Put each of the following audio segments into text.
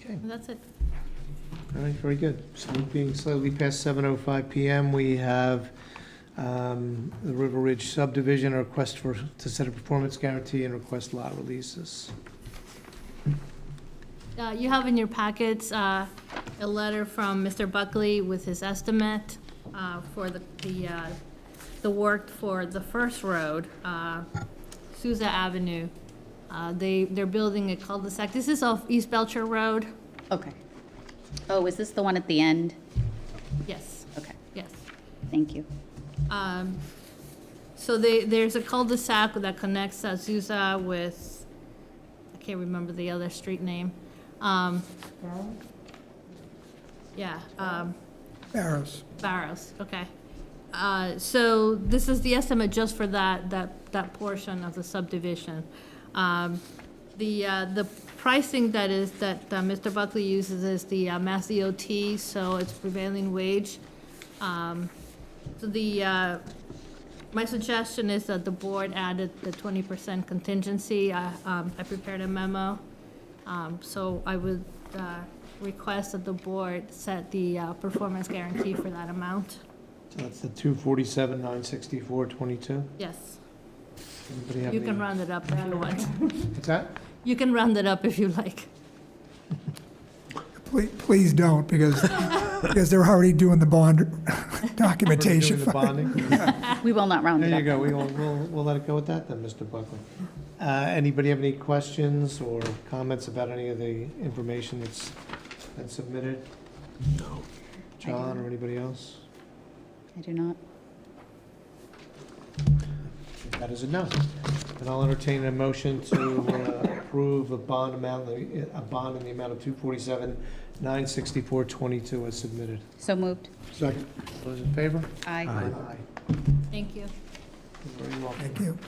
Okay, That's it. all right, very good. So it being slightly past 7:05 PM, we have um, the River Ridge subdivision, a request for, to set a performance guarantee and request lot releases. Uh, You have in your packets uh, a letter from Mr. Buckley with his estimate uh, for the, the, uh, the work for the first road, uh, Souza Avenue. Uh, They, they're building a cul-de-sac. This is off East Belcher Road. Okay. Oh, is this the one at the end? Yes, Okay, yes. thank you. Um, So they, there's a cul-de-sac that connects Azusa with, I can't remember the other street name. Um, Yeah, um, Barrows. Barrows, okay. Uh, So this is the estimate just for that, that, that portion of the subdivision. Um, The, uh, the pricing that is, that uh, Mr. Buckley uses is the uh, Mass DOT, so it's prevailing wage. Um, So the, uh, my suggestion is that the board added the twenty percent contingency. I, um, I prepared a memo. Um, so I would, uh, request that the board set the, uh, performance guarantee for that amount. So that's the 247, 964, 22. Yes, Anybody have you can any- round it up if you want. What's that? You can round it up if you like. Please, please don't, because, because they're already doing the bond We're doing documentation. the bonding? We will not round it up. There you go, we will, we'll, we'll let it go with that then, Mr. Buckley. Uh, anybody have any questions or comments about any of the information that's been submitted? No. John or anybody else? I do not. That is a no. And I'll entertain a motion to uh, approve a bond amount, a bond in the amount of two forty-seven, nine sixty-four, twenty-two as submitted. So moved. Second. Those in favor? Aye. Thank you. You're Very welcome. Thank you.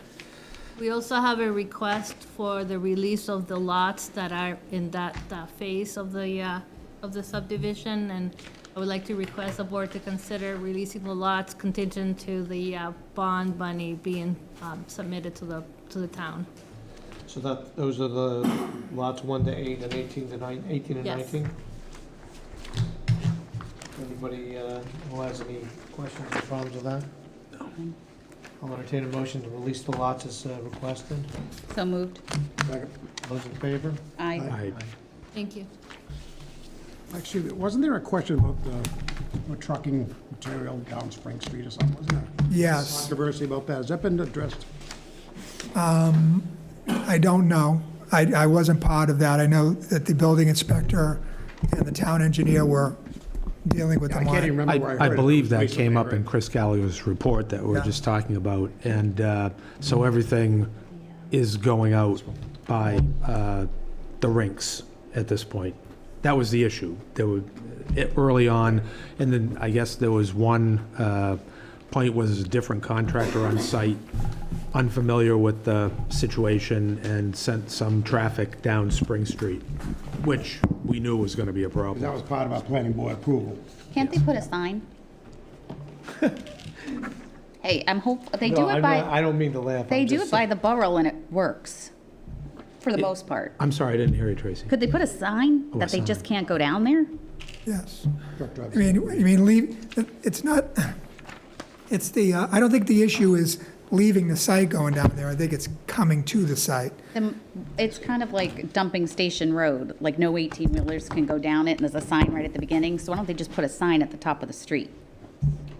We also have a request for the release of the lots that are in that uh, phase of the, uh, of the subdivision, and I would like to request the board to consider releasing the lots contingent to the uh, bond money being um, submitted to the, to the town. So that, those are the lots one to eight and eighteen to nine, eighteen and Yes. nineteen? Anybody uh, who has any questions or problems with that? No. I'll entertain a motion to release the lots as uh, requested. So moved. Those in favor? Aye. Thank you. Actually, wasn't there a question about the the trucking material down Spring Street or something, wasn't there? Yes. Controversy about that, has that been addressed? I don't know. I, I wasn't part of that. I know that the building inspector and the town engineer were dealing with the I can't even line. remember where I heard I it. believe that Recently, came up right? in Chris Gallio's report that we Yeah. were just talking about, and uh, Mm-hmm. so everything is going out by uh, the rinks at this point. That was the issue. There were, it- early on, and then I guess there was one uh, point was a different contractor on site, unfamiliar with the situation, and sent some traffic down Spring Street, which we knew was going to be a problem. That was part of our planning board approval. Can't they put a sign? Hey, I'm hope, they do No, it I'm not- by, I don't mean to laugh. they I'm do just it by the borough and it works, for the most part. I'm sorry, I didn't hear you, Tracy. Could they put a sign Oh, a that they just sign. can't go down there? Yes. Truck I drivers. mean, I mean, leave, it's not, it's the, uh, I don't think the issue is leaving the site going down there. I think it's coming to the site. Then It's kind of like dumping Station Road, like no 18-wheelers can go down it, and there's a sign right at the beginning, so why don't they just put a sign at the top of the street?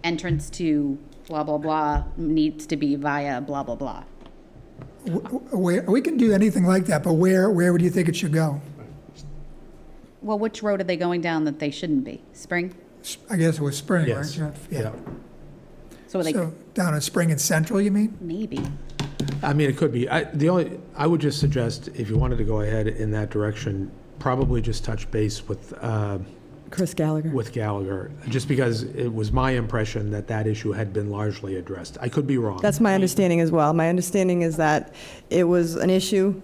Entrance to blah, blah, blah, needs to be via blah, blah, blah. W- w- Where, we can do anything like that, but where, where would you think it should go? Well, which road are they going down that they shouldn't be? Spring? I guess it was Spring, right? Yes. Jeff? Yeah. So are they, So down in Spring and Central, you mean? maybe. I mean, it could be. I, the only, I would just suggest, if you wanted to go ahead in that direction, probably just touch base with, uh, Chris Gallagher. with Gallagher, just because it was my impression that that issue had been largely addressed. I could be wrong. That's my understanding as well. My understanding is that it was an issue.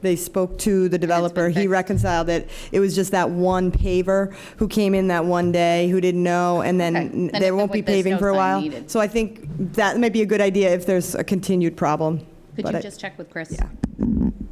They spoke to the developer. He fixed. reconciled it. It was just that one paver who came in that one day who didn't know, and Okay. Then then it- there won't be there's no paving for a sign while. needed. So I think that might be a good idea if there's a continued problem. Could But you I- just check with Chris? Yeah.